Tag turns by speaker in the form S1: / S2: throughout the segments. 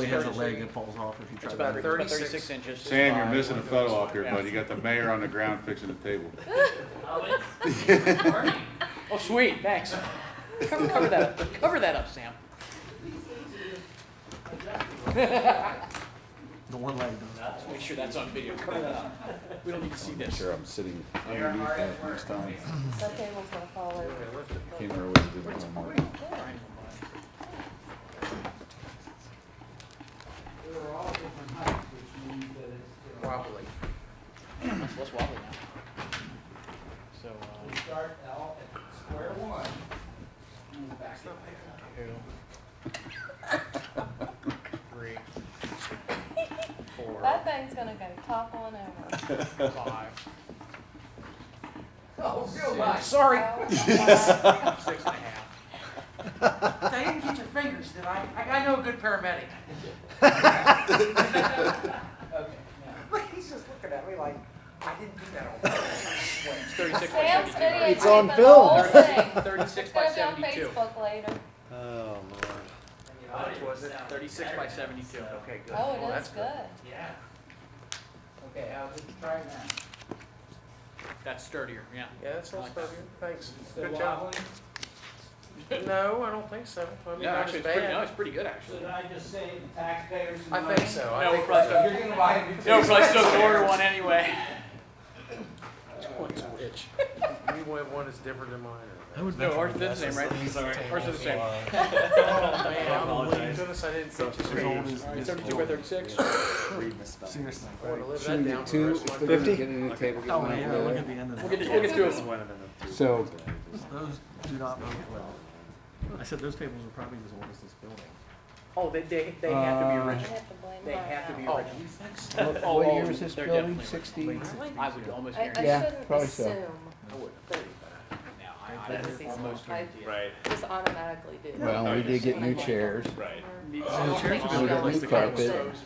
S1: has a leg
S2: inches.
S1: that falls off if you try
S2: It's
S1: to.
S2: about
S1: move it.
S2: thirty-six.
S3: Thirty-six inches.
S4: Sam, you're missing a photo
S2: off
S4: off here, bud. You got the mayor on the ground fixing the table.
S3: Oh, it's burning.
S2: Oh, sweet, thanks. Cover, cover that, up. cover that up, Sam.
S1: The one leg does.
S2: Let's Uh, make sure that's on video, cover that up. We don't need to see this.
S4: I'm sitting underneath that next time.
S5: That table's gonna fall over.
S4: Can't remember what you did with my mark.
S6: They were all different heights, which means that it's, uh,
S2: Wobbly. It's less wobbly now. So,
S6: we
S2: uh,
S6: start out at square one, and we're back up there.
S2: two, uh, three, four,
S5: That thing's gonna go toppling over.
S2: five,
S6: Oh, real life.
S2: sorry,
S5: Oh, wow.
S2: six and a half.
S3: Diane, get your fingers, did I? I, I know a good paramedic.
S6: Okay, now,
S3: Look, he's just looking at me like, I didn't do that on purpose.
S2: It's thirty-six by
S5: Sam's
S2: seventy-two,
S5: video.
S2: right?
S7: It's on
S5: taping the whole
S7: film.
S5: thing.
S2: Thirty-six
S5: It's
S2: by
S5: gonna be on
S2: seventy-two.
S5: Facebook later.
S7: Oh, Lord.
S6: and you know,
S2: How much was it? Thirty-six by seventy-two, okay, good. Well,
S5: Oh, it is
S2: that's
S5: good.
S6: yeah. Okay, I'll just try that.
S2: That's sturdier, yeah.
S3: Yeah, that's all stuff, thanks.
S6: Is it
S3: Good job.
S6: wobbling?
S3: No, I don't think so. I mean,
S2: No,
S3: not
S2: actually,
S3: as
S2: it's pretty, no,
S3: bad.
S2: it's pretty good, actually.
S6: Should I just say the taxpayers? and
S3: I think so. I
S2: No,
S3: think
S2: we're probably
S3: that's-
S6: If you're gonna buy a new
S2: No,
S6: table.
S2: because I still order one anyway. itch.
S3: You went one that's different than mine.
S1: I would
S2: No,
S1: venture
S2: ours
S1: to
S2: is the
S1: guess
S2: same, right? Ours is the same.
S3: Oh, man, I'm
S7: apologize.
S3: goodness, I didn't catch
S1: it's as
S3: it.
S1: old as
S2: Alright,
S1: this
S2: seventy-two by
S1: board.
S2: thirty-six.
S1: Seriously.
S3: I want to live that
S8: Shouldn't
S3: down
S8: get
S3: for the
S8: two,
S3: rest
S8: if
S3: of my
S8: they're
S3: life.
S8: gonna get a new table, get
S1: Oh,
S8: one
S1: yeah,
S8: over
S1: look
S8: there.
S1: at the end of
S2: We'll get,
S1: that.
S2: we'll get to it.
S8: So,
S1: Those do not move well. I said those tables are probably as old as this building.
S2: Oh, they, they, they have to be
S8: Uh, oh.
S5: I
S2: original.
S5: have to blame
S2: They have to be
S5: Ryan.
S2: original.
S8: what
S2: Oh,
S8: what
S2: oh,
S8: year is this
S2: they're
S8: building,
S2: definitely-
S8: sixty?
S2: I would almost
S5: I,
S2: guarantee.
S5: I
S8: Yeah,
S5: shouldn't
S8: probably so.
S5: assume
S2: I would.
S5: that
S2: Now,
S5: I would almost guarantee
S2: Right.
S5: just automatically do.
S8: Well, we did get new chairs,
S2: Right.
S1: chairs have
S8: been built like the carpet.
S5: Sometimes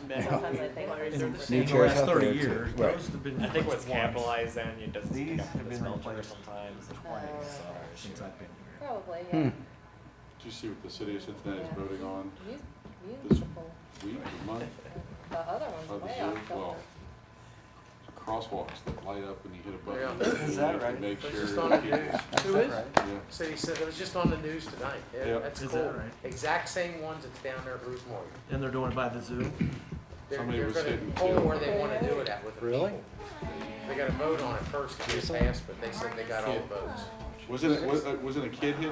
S5: I think
S2: They're
S5: they're
S2: the
S5: the
S8: new
S1: In
S2: same.
S1: the
S8: chairs
S1: last
S8: out there
S1: thirty
S8: too.
S1: years,
S8: Right.
S1: those have been.
S9: I think what's
S1: replaced once
S9: capitalized on you doesn't pick
S1: These
S9: up
S1: have
S9: the
S1: been
S9: smell to it
S1: replaced.
S9: sometimes.
S5: Oh.
S1: Since I've been here.
S5: Probably, yeah.
S8: Hmm.
S4: Did you see what the city of Cincinnati is voting on
S5: Mu-
S4: This-
S5: Musical.
S4: week, month,
S5: The other one's
S4: of the
S5: way
S4: year?
S5: off
S4: Well,
S5: filter.
S4: crosswalks that light up when you hit a button.
S3: Yeah.
S8: Is that
S4: You
S8: right?
S4: Make
S3: It's
S4: sure.
S3: just on the news. Who is?
S4: Yeah.
S3: City said, it was just on the news tonight. Yeah,
S4: Yep.
S3: that's
S1: Is that
S3: cool.
S1: right?
S3: Exact same ones that's down there at Ruth Morgan.
S1: And they're doing it by the zoo.
S3: They're,
S4: Somebody
S3: they're
S4: was
S3: gonna
S4: hitting
S3: pull
S4: two.
S3: where they wanna do it at with the
S8: Really?
S3: people. They got a vote on it first to get passed, but they said they got all the votes.
S4: Wasn't it, was, uh, wasn't a kid hit?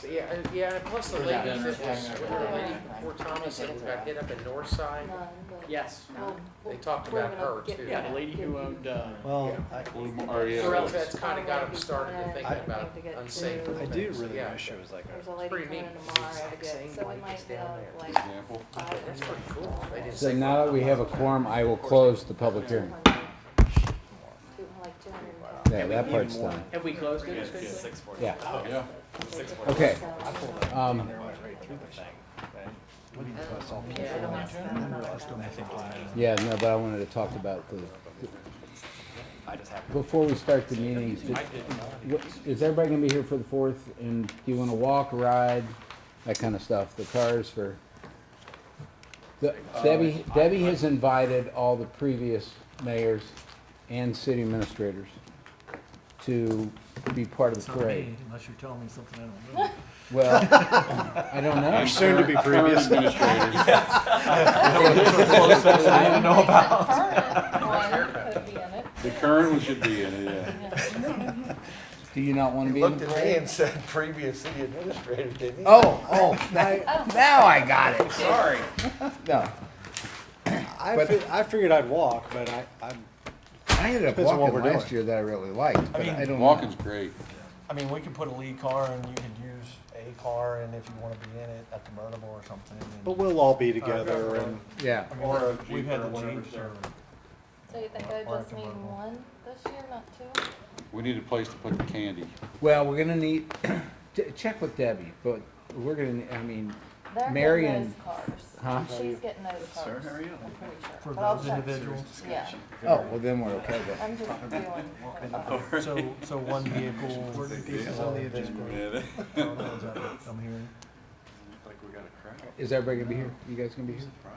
S3: So, yeah, and- yeah, and plus the lady that was, the lady before Thomas that got hit up in Northside,
S5: None, but- um,
S2: Yes.
S5: Well,
S3: they talked
S5: we're
S3: about her
S5: gonna get
S3: too.
S2: Yeah, the lady who
S5: um,
S2: owned, uh,
S7: Well, I,
S4: Or- or, yeah,
S3: So
S4: it was.
S3: that's kinda got them started to think
S7: I-
S3: about
S5: I get
S3: unsafe.
S5: to-
S7: I
S3: things.
S7: do really
S3: Yeah.
S7: wish it was like
S5: There's
S7: a,
S5: a lady
S3: pretty
S5: coming in
S3: neat.
S5: tomorrow to
S3: Exact
S5: get,
S3: same
S5: so we
S3: like
S5: might
S3: it's down
S5: have
S3: there.
S5: like
S4: Example.
S5: five
S3: That's
S5: or
S3: pretty cool. They didn't
S8: so
S3: say
S8: now that we have a quorum, I will close the public
S5: two
S8: hearing.
S5: hundred. Two, like two hundred and ten.
S8: Yeah, that part's done.
S2: have we closed it?
S9: Six forty.
S8: Yeah,
S4: Yeah.
S9: Six forty.
S8: okay,
S5: So,
S8: um,
S7: right through the thing.
S8: yeah, no, but I wanted to talk about the, before we start the meeting, just- what- is everybody gonna be here for the fourth? And do you wanna walk, ride, that kinda stuff, the cars for? The-
S10: Uh,
S8: Debbie, Debbie has invited all the previous mayors and city administrators to be part of
S1: It's
S8: the
S1: not me,
S8: parade.
S1: Unless you're telling me something I don't know.
S8: Well, I don't know.
S4: soon to be previous. Administrators.
S5: I don't know about. One could be in it.
S4: The current one should be in it, yeah.
S8: Do you not want to be in
S10: looked
S8: the
S10: at me
S8: parade?
S10: and said, previous city administrator, didn't he?
S8: Oh, oh, now, now I got it. Sorry. No,
S7: I,
S8: But-
S7: fi- I figured I'd walk, but I, I'm,
S8: I ended up
S7: Depends on what
S8: walking
S7: we're
S8: last year that I really liked, but
S10: mean,
S8: I don't know.
S4: Walking's great.
S10: I mean, we could put a lead car and you could use a car and if you wanna be in it at the mobile or something. and- Uh,
S7: but we'll all be together and,
S8: Yeah,
S10: I mean,
S1: Or
S10: or
S1: a
S10: we've
S1: Jeep
S10: had
S1: or
S10: the
S1: whatever,
S10: Jeeps
S1: so-
S10: or.
S5: So you think I
S10: Or a
S5: just need
S10: convertible.
S5: one this year, not two?
S4: We need a place to put the candy.
S8: well, we're gonna need, ch- check with Debbie, but we're gonna, I mean,
S5: They're
S8: Mary
S5: getting
S8: and-
S5: those cars.
S8: Huh?
S5: She's getting those cars.
S7: how are you?
S5: I'm pretty sure.
S1: For
S5: But I'll
S1: those
S5: check.
S1: individuals.
S5: Yeah,
S8: oh, well, then we're okay then.
S5: I'm just doing.
S10: So, so one vehicle.
S1: pieces
S10: on the
S1: I'm hearing.
S8: Is everybody gonna be here? You guys gonna be here?